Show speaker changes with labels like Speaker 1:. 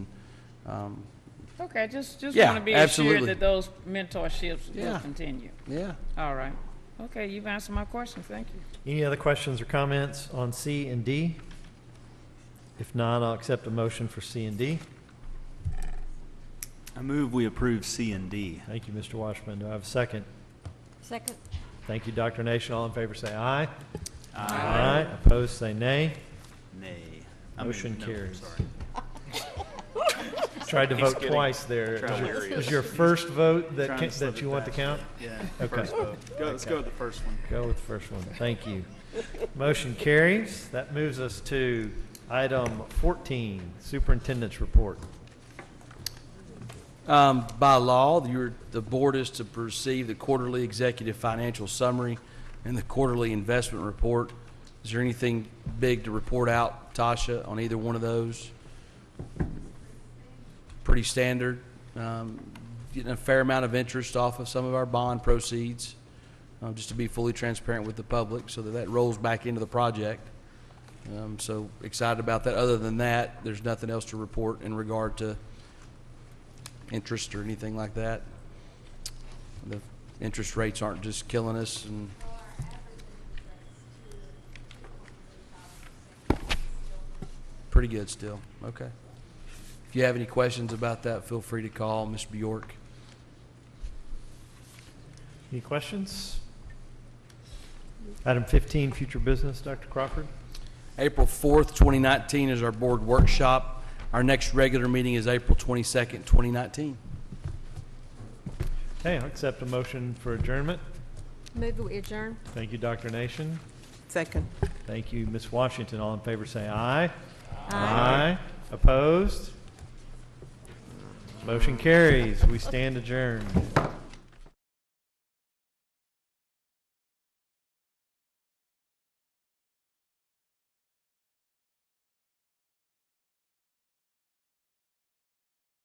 Speaker 1: Um,
Speaker 2: Okay, just, just
Speaker 1: Yeah,
Speaker 2: want to be assured
Speaker 1: absolutely.
Speaker 2: that those mentorships will
Speaker 1: Yeah.
Speaker 2: continue.
Speaker 1: Yeah,
Speaker 2: All right. Okay, you've answered my questions. Thank you.
Speaker 3: Any other questions or comments on C and D? If not, I'll accept a motion for C and D.
Speaker 4: I move we approve C and D.
Speaker 3: Thank you, Mr. Washman. Do I have a second?
Speaker 5: Second.
Speaker 3: Thank you, Dr. Nation. All in favor, say aye. Aye. Opposed, say nay.
Speaker 4: Nay. I mean,
Speaker 3: Motion
Speaker 4: no,
Speaker 3: carries.
Speaker 4: sorry.
Speaker 3: Tried to vote twice there. It was your- it Was your first vote that,
Speaker 4: Trying
Speaker 3: ca-
Speaker 4: to slip
Speaker 3: that
Speaker 4: it
Speaker 3: you want to
Speaker 4: back.
Speaker 3: count?
Speaker 4: Yeah.
Speaker 3: Okay.
Speaker 4: first vote. Go, let's go with the first one.
Speaker 3: Go with the first one. Thank you. Motion carries. That moves us to item 14, Superintendent's Report.
Speaker 1: Um, By law, your, the board is to perceive the quarterly executive financial summary and the quarterly investment report. Is there anything big to report out, Tasha, on either one of those? Pretty standard. Um, Getting a fair amount of interest off of some of our bond proceeds, um, just to be fully transparent with the public, so that that rolls back into the project. Um, So excited about that. Other than that, there's nothing else to report in regard to interest or anything like that. The interest rates aren't just killing us and, pretty good still, okay. If you have any questions about that, feel free to call Ms. Bjork.
Speaker 3: Any questions? Item 15, Future Business, Dr. Crawford.
Speaker 1: April 4th, 2019 is our board workshop. Our next regular meeting is April 22nd, 2019.
Speaker 3: Okay, I'll accept a motion for adjournment.
Speaker 5: Move we adjourn.
Speaker 3: Thank you, Dr. Nation.
Speaker 6: Second.
Speaker 3: Thank you, Ms. Washington. All in favor, say aye. Aye. Opposed? Motion carries. We stand adjourned.